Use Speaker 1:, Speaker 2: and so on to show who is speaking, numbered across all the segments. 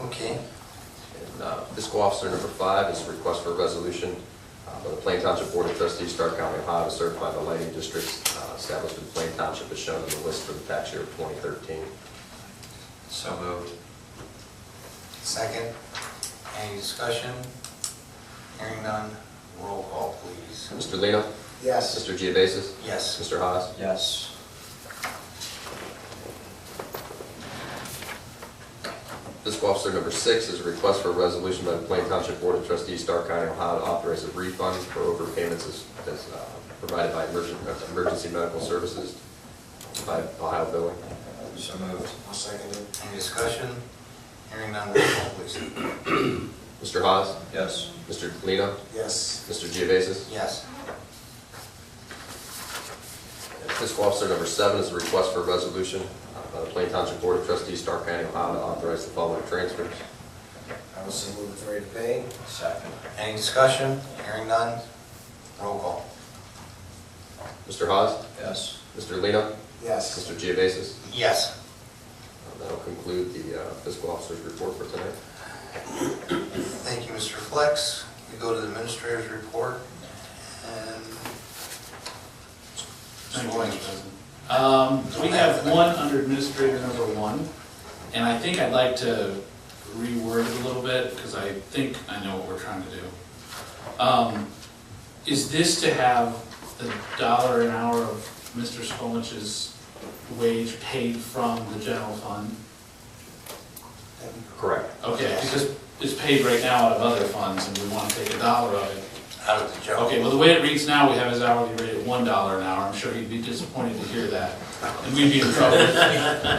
Speaker 1: Okay,
Speaker 2: And uh, fiscal officer number five is a request for a resolution uh, by the Plain Township Board of Trustees, Stark County, Ohio, to certify the lighting districts uh, established in Plain Township as shown in the list for the tax year of 2013.
Speaker 3: So moved.
Speaker 1: second. Any discussion? Hearing none, roll call, please.
Speaker 2: Mr. Lino?
Speaker 1: Yes.
Speaker 2: Mr. Geovasis?
Speaker 1: Yes.
Speaker 2: Mr. Haas?
Speaker 3: Yes.
Speaker 2: Fiscal officer number six is a request for a resolution by the Plain Township Board of Trustees, Stark County, Ohio, to authorize a refund for overpayments as, as uh, provided by emergen- uh, emergency medical services by Ohio Billing.
Speaker 3: So moved.
Speaker 1: I'll second it. Any discussion? Hearing none, roll call, please.
Speaker 2: Mr. Haas?
Speaker 3: Yes.
Speaker 2: Mr. Lino?
Speaker 1: Yes.
Speaker 2: Mr. Geovasis?
Speaker 1: Yes.
Speaker 2: Fiscal Officer number seven is a request for a resolution uh, by the Plain Township Board of Trustees, Stark County, Ohio, to authorize the following transfers.
Speaker 1: I will say move authority to pay.
Speaker 3: Second.
Speaker 1: Any discussion? Hearing none, roll call.
Speaker 2: Mr. Haas,
Speaker 3: Yes.
Speaker 2: Mr. Lino,
Speaker 1: Yes.
Speaker 2: Mr. Geovasis.
Speaker 1: Yes.
Speaker 2: Uh, That'll conclude the uh, fiscal officer's report for tonight.
Speaker 1: Thank you, Mr. Flex. We go to the administrator's report and...
Speaker 4: Thank you, Mr. President. Um, we have one under administrator number one, and I think I'd like to reword it a little bit, because I think I know what we're trying to do. Um, is this to have the dollar an hour of Mr. Skolnich's wage paid from the general fund?
Speaker 2: Correct.
Speaker 4: Okay, because it's paid right now out of other funds, and we want to take a dollar of it.
Speaker 1: Out of the job.
Speaker 4: Okay, well, the way it reads now, we have his hourly rate at one dollar an hour, I'm sure he'd be disappointed to hear that, and we'd be in trouble.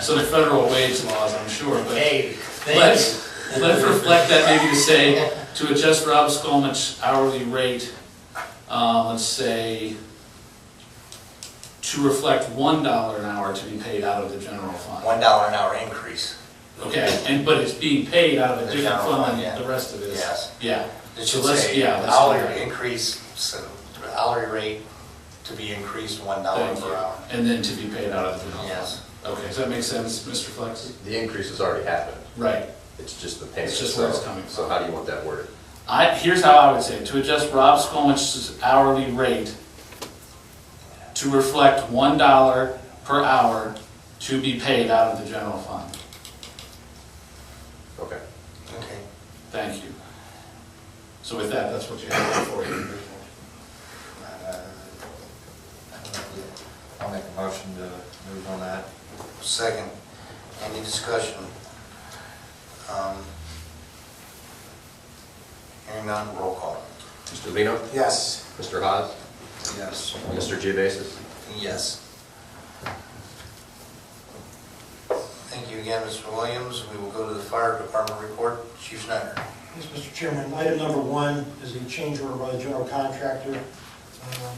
Speaker 4: So the federal wage laws, I'm sure, but
Speaker 3: Hey,
Speaker 4: let's, let's reflect that maybe to say, to adjust Rob Skolnich's hourly rate, uh, let's say, to reflect one dollar an hour to be paid out of the general fund.
Speaker 1: One dollar an hour increase.
Speaker 4: Okay, and, but it's being paid out of a
Speaker 1: The
Speaker 4: different
Speaker 1: general
Speaker 4: fund
Speaker 1: fund, yeah.
Speaker 4: than the rest of it is.
Speaker 1: Yes.
Speaker 4: Yeah.
Speaker 1: It
Speaker 4: So
Speaker 1: should
Speaker 4: let's-
Speaker 1: say
Speaker 4: yeah, let's clear
Speaker 1: hourly
Speaker 4: it.
Speaker 1: increase, so hourly rate to be increased one dollar
Speaker 4: Thank you.
Speaker 1: per hour.
Speaker 4: And then to be paid out of the general fund.
Speaker 1: Yes.
Speaker 4: Okay, does that make sense, Mr. Flex?
Speaker 2: The increase has already happened.
Speaker 4: Right.
Speaker 2: It's just the payment.
Speaker 4: It's just where it's
Speaker 2: So-
Speaker 4: coming from.
Speaker 2: So how do you want that worded?
Speaker 4: I, here's how I would say, it. to adjust Rob Skolmich's hourly rate to reflect one dollar per hour to be paid out of the general fund.
Speaker 2: Okay.
Speaker 1: Okay.
Speaker 4: Thank you. So with that, that's what you have for you.
Speaker 1: Uh,
Speaker 3: I'll make a motion to move on that.
Speaker 1: Second, any discussion? Um, Hearing none, roll call.
Speaker 2: Mr. Lino,
Speaker 1: Yes.
Speaker 2: Mr. Haas,
Speaker 3: Yes.
Speaker 2: Mr. Geovasis.
Speaker 1: Yes. Thank you again, Mr. Williams. We will go to the fire department report. Chief Snyder.
Speaker 5: Yes, Mr. Chairman, item number one is a change order by the general contractor. um,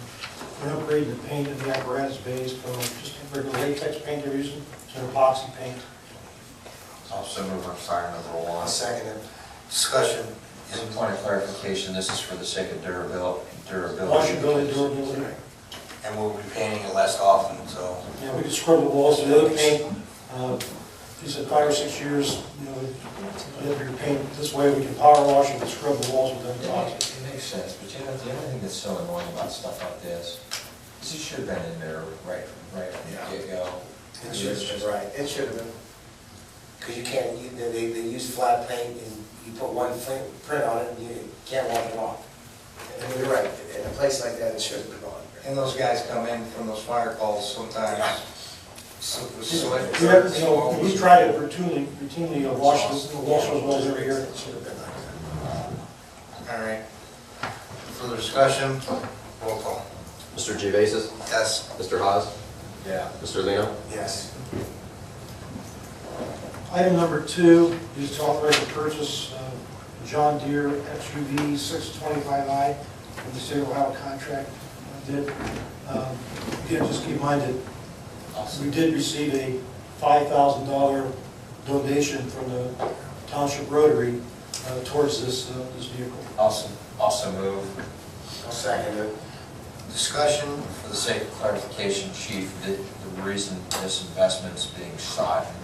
Speaker 5: for An upgrade in the paint of the apparatus base from just a regular latex paint they're using to an epoxy paint.
Speaker 3: Also move on fire number one.
Speaker 1: second Discussion.
Speaker 3: Just a point of clarification, this is for the sake of durabil- durability.
Speaker 5: Washability, durability,
Speaker 1: And we'll be painting it less often, so.
Speaker 5: yeah, we could scrub the walls with other paint. uh, He said five or six years, you know, whatever your paint, this way we can power wash and scrub the walls with
Speaker 3: It
Speaker 5: other epoxy.
Speaker 3: makes- it makes sense, but you know, the only thing that's so annoying about stuff like this, is it should have been in there right, right from the get-go.
Speaker 6: It should have been, right, it should have been. Because you can't, you- they, they they use flat paint and you put one thing- print on it and you can't wash it off. And you're right, in a place like that, it should have been on.
Speaker 3: And those guys come in from those fire calls sometimes. So, so it-
Speaker 5: We have, you know, we try to routinely, routinely uh, wash the wash those walls every year.
Speaker 1: All right. Further discussion? Roll call.
Speaker 2: Mr. Geovasis,
Speaker 1: Yes.
Speaker 2: Mr. Haas,
Speaker 3: Yeah.
Speaker 2: Mr. Lino,
Speaker 6: Yes.
Speaker 5: Item number two is to authorize the purchase of John Deere XUV 625i from the state of Ohio contract bid. Um, Again, just keep in mind that we did receive a $5,000 donation from the Township Rotary uh, towards this, uh, this vehicle.
Speaker 3: Also, also move,
Speaker 6: I'll second it.
Speaker 1: Discussion?
Speaker 3: for the sake of clarification, chief, the, the reason this investment's being sought in